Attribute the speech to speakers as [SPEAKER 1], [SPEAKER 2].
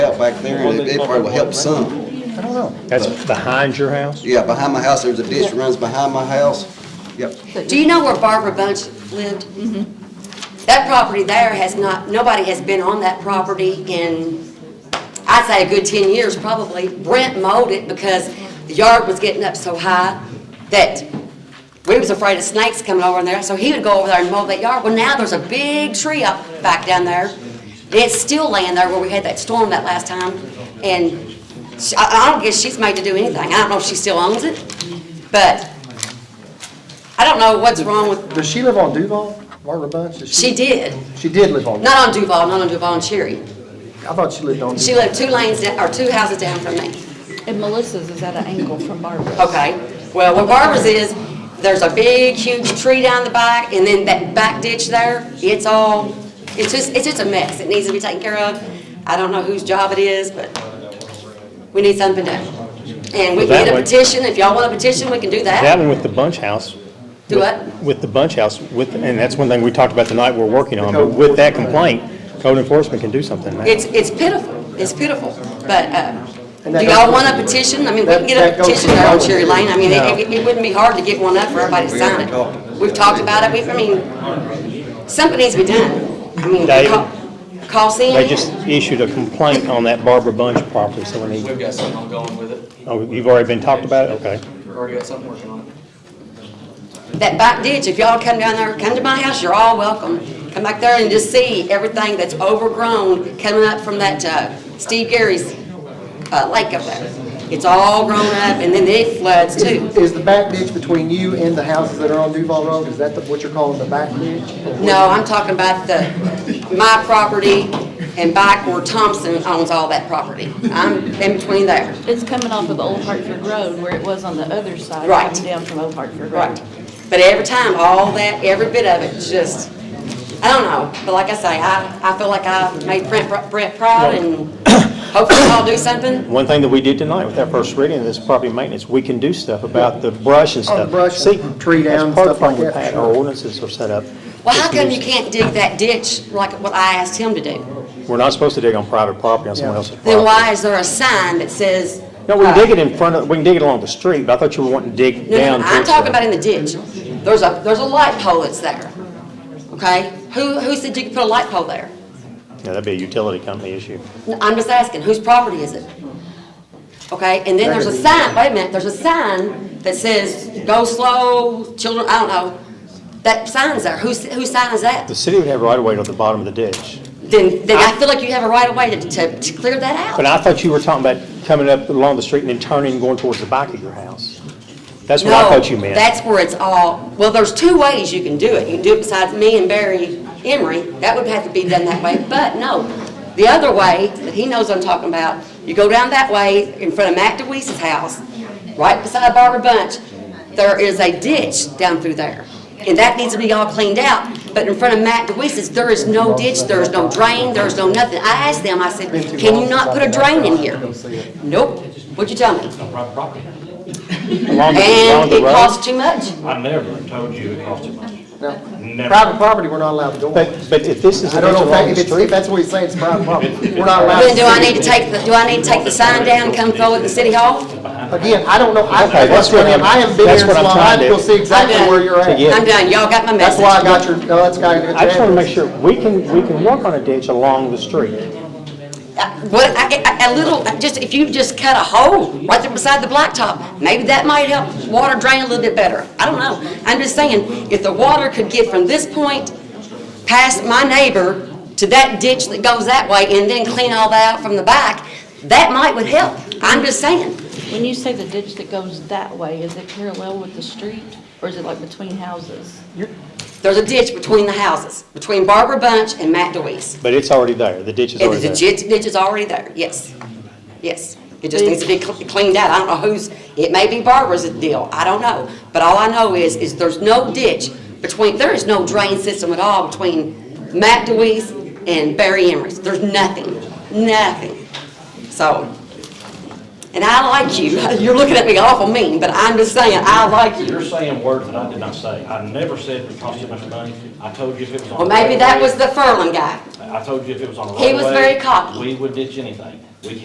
[SPEAKER 1] out back there, and it it probably will help some.
[SPEAKER 2] I don't know.
[SPEAKER 3] That's behind your house?
[SPEAKER 1] Yeah, behind my house, there's a ditch that runs behind my house. Yep.
[SPEAKER 4] Do you know where Barbara Bunch lived? That property there has not, nobody has been on that property in, I'd say a good 10 years probably. Brent mowed it because the yard was getting up so high that we was afraid of snakes coming over in there, so he would go over there and mow that yard. Well, now there's a big tree up back down there. and It's still laying there where we had that storm that last time, and she- I I don't guess she's made to do anything. I don't know if she still owns it, but I don't know what's wrong with,
[SPEAKER 2] Does she live on Duval, Barbara Bunch? Does
[SPEAKER 4] she did,
[SPEAKER 2] She did live on, I
[SPEAKER 4] not on Duval, not on Duval and Cherry.
[SPEAKER 2] thought she lived on
[SPEAKER 4] She
[SPEAKER 2] Duval.
[SPEAKER 4] lived two lanes, down or two houses down from me.
[SPEAKER 5] And Melissa's is at an angle from Barbara's.
[SPEAKER 4] Okay, well, where Barbara's is, there's a big, huge tree down the back, and then that back ditch there, it's all, it's just, it's just a mess. It needs to be taken care of. I don't know whose job it is, but we need something done. And we
[SPEAKER 3] Well, that
[SPEAKER 4] can get a
[SPEAKER 3] way-
[SPEAKER 4] petition, if y'all want a petition, we can do
[SPEAKER 3] That
[SPEAKER 4] that.
[SPEAKER 3] one with the bunch house.
[SPEAKER 4] Do
[SPEAKER 3] with-
[SPEAKER 4] what?
[SPEAKER 3] With the bunch house, with, and that's one thing we talked about tonight we're working on, but with that complaint, code enforcement can do something, man.
[SPEAKER 4] It's, it's pitiful, it's pitiful, but, uh,
[SPEAKER 2] And that
[SPEAKER 4] do
[SPEAKER 2] goes
[SPEAKER 4] y'all
[SPEAKER 2] for-
[SPEAKER 4] want a petition? I mean, we can
[SPEAKER 2] That-
[SPEAKER 4] get
[SPEAKER 2] that
[SPEAKER 4] a
[SPEAKER 2] goes
[SPEAKER 4] petition
[SPEAKER 2] for
[SPEAKER 4] there on
[SPEAKER 2] both.
[SPEAKER 4] Cherry Lane. I mean,
[SPEAKER 3] No.
[SPEAKER 4] it, it- it wouldn't be hard to get one up for everybody to
[SPEAKER 1] We already
[SPEAKER 4] sign
[SPEAKER 1] talked.
[SPEAKER 4] it. We've talked about it, we've, I mean, something needs to be done. I mean,
[SPEAKER 3] David?
[SPEAKER 4] call- call Sam.
[SPEAKER 3] They just issued a complaint on that Barbara Bunch property, so we need,
[SPEAKER 6] We've got something ongoing with it.
[SPEAKER 3] oh, you've already been talked about it, okay.
[SPEAKER 6] We've already got something working on it.
[SPEAKER 4] that back ditch, if y'all come down there, come to my house, you're all welcome. Come back there and just see everything that's overgrown coming up from that uh, Steve Gary's uh, lake up there. It's all grown up and then it floods too.
[SPEAKER 2] Is the back ditch between you and the houses that are on Duval Road, is that the- what you're calling the back ditch?
[SPEAKER 4] No, I'm talking about the, my property and back where Thompson owns all that property. I'm in between there.
[SPEAKER 5] It's coming off of Old Hartford Road where it was on the other side.
[SPEAKER 4] Right.
[SPEAKER 5] Coming down from Old Hartford Road.
[SPEAKER 4] Right. But every time, all that, every bit of it, just, I don't know, but like I say, I, I feel like I made Brent, Brent proud and hopefully I'll do something.
[SPEAKER 3] One thing that we did tonight with that first reading of this property maintenance, we can do stuff about the brush and
[SPEAKER 2] Oh, the
[SPEAKER 3] stuff.
[SPEAKER 2] brush
[SPEAKER 3] See,
[SPEAKER 2] and tree down and
[SPEAKER 3] That's part of
[SPEAKER 2] stuff
[SPEAKER 3] the problem
[SPEAKER 2] like
[SPEAKER 3] we've
[SPEAKER 2] that,
[SPEAKER 3] had,
[SPEAKER 2] sure.
[SPEAKER 3] our ordinances are set up.
[SPEAKER 4] Well, how
[SPEAKER 3] It's
[SPEAKER 4] come
[SPEAKER 3] new.
[SPEAKER 4] you can't dig that ditch like what I asked him to do?
[SPEAKER 3] We're not supposed to dig on private property, on someone else's property.
[SPEAKER 4] Then why is there a sign that says?
[SPEAKER 3] No, we can
[SPEAKER 4] uh,
[SPEAKER 3] dig it in front of, we can dig it along the street, but I thought you were wanting to dig
[SPEAKER 4] No, no,
[SPEAKER 3] down.
[SPEAKER 4] no, I'm
[SPEAKER 3] towards
[SPEAKER 4] talking
[SPEAKER 3] the-
[SPEAKER 4] about in the ditch. There's a, there's a light pole that's there, okay? Who, who said you could put a light pole there?
[SPEAKER 3] Yeah, that'd be a utility company issue.
[SPEAKER 4] No, I'm just asking, whose property is it? Okay, and then there's a sign, wait a minute, there's a sign that says, go slow, children, I don't know. That sign's there, whose, whose sign is that?
[SPEAKER 3] The city would have right of way to the bottom of the ditch.
[SPEAKER 4] Then, then I feel like you have a right of way to, to, to clear that
[SPEAKER 3] But
[SPEAKER 4] out.
[SPEAKER 3] I thought you were talking about coming up along the street and then turning and going towards the back of your house. That's what I thought you
[SPEAKER 4] No,
[SPEAKER 3] meant.
[SPEAKER 4] that's where it's all, well, there's two ways you can do it. You can do it besides me and Barry Emery, that would have to be done that way, but no. The other way, that he knows I'm talking about, you go down that way in front of Matt DeWeese's house, right beside Barbara Bunch, there is a ditch down through there. And that needs to be all cleaned out, but in front of Matt DeWeese's, there is no ditch, there is no drain, there is no nothing. I asked them, I said, can you not put a drain in here? Nope, what'd you tell me?
[SPEAKER 3] Along the- along
[SPEAKER 4] And
[SPEAKER 3] the
[SPEAKER 4] it
[SPEAKER 3] road.
[SPEAKER 4] costs too much.
[SPEAKER 7] I never told you it cost you money.
[SPEAKER 2] No.
[SPEAKER 7] Never.
[SPEAKER 2] Private property, we're not allowed to go on.
[SPEAKER 3] But, but if this is
[SPEAKER 2] I
[SPEAKER 3] a ditch
[SPEAKER 2] don't know if that-
[SPEAKER 3] along
[SPEAKER 2] if
[SPEAKER 3] the
[SPEAKER 2] it's, if
[SPEAKER 3] street,
[SPEAKER 2] that's what he's saying, it's private property. We're not allowed to.
[SPEAKER 4] Then do I need to take, the do I need to take the sign down and come forward to City Hall?
[SPEAKER 2] Again, I don't know, I,
[SPEAKER 3] Okay,
[SPEAKER 2] that's
[SPEAKER 3] that's
[SPEAKER 2] what I
[SPEAKER 3] what I'm-
[SPEAKER 2] am, I haven't been here
[SPEAKER 3] that's
[SPEAKER 2] so
[SPEAKER 3] what I'm
[SPEAKER 2] long, I
[SPEAKER 3] trying to
[SPEAKER 2] can
[SPEAKER 3] do.
[SPEAKER 2] see exactly
[SPEAKER 4] Okay.
[SPEAKER 2] where you're
[SPEAKER 3] To get-
[SPEAKER 2] at.
[SPEAKER 4] I'm done, y'all got my
[SPEAKER 2] That's
[SPEAKER 4] message.
[SPEAKER 2] why I got your, no, that's got your
[SPEAKER 3] I just want to make sure, we can, we can work on a ditch along the street.
[SPEAKER 4] Uh, What, I- I- a little, just, if you just cut a hole right there beside the blacktop, maybe that might help water drain a little bit better. I don't know. I'm just saying, if the water could get from this point past my neighbor to that ditch that goes that way and then clean all that out from the back, that might would help. I'm just saying.
[SPEAKER 5] When you say the ditch that goes that way, is it parallel with the street or is it like between houses?
[SPEAKER 4] There's a ditch between the houses, between Barbara Bunch and Matt DeWeese.
[SPEAKER 3] But it's already there, the ditch is
[SPEAKER 4] It-
[SPEAKER 3] already
[SPEAKER 4] The
[SPEAKER 3] there.
[SPEAKER 4] ditch, ditch is already there, yes, yes. It just needs to be cl- cleaned out. I don't know who's, it may be Barbara's deal, I don't know. But all I know is, is there's no ditch between, there is no drain system at all between Matt DeWeese and Barry Emery's. There's nothing, nothing. So, and I like you, you're looking at me awful mean, but I'm just saying, I like you.
[SPEAKER 7] You're saying words that I did not say. I never said it cost you much money. I told you if it was on.
[SPEAKER 4] Well,
[SPEAKER 7] the
[SPEAKER 4] maybe that
[SPEAKER 7] railway-
[SPEAKER 4] was the Furlan guy.
[SPEAKER 7] I told you if it was on. the
[SPEAKER 4] He was
[SPEAKER 7] railway,
[SPEAKER 4] very cocky.
[SPEAKER 7] We would ditch anything.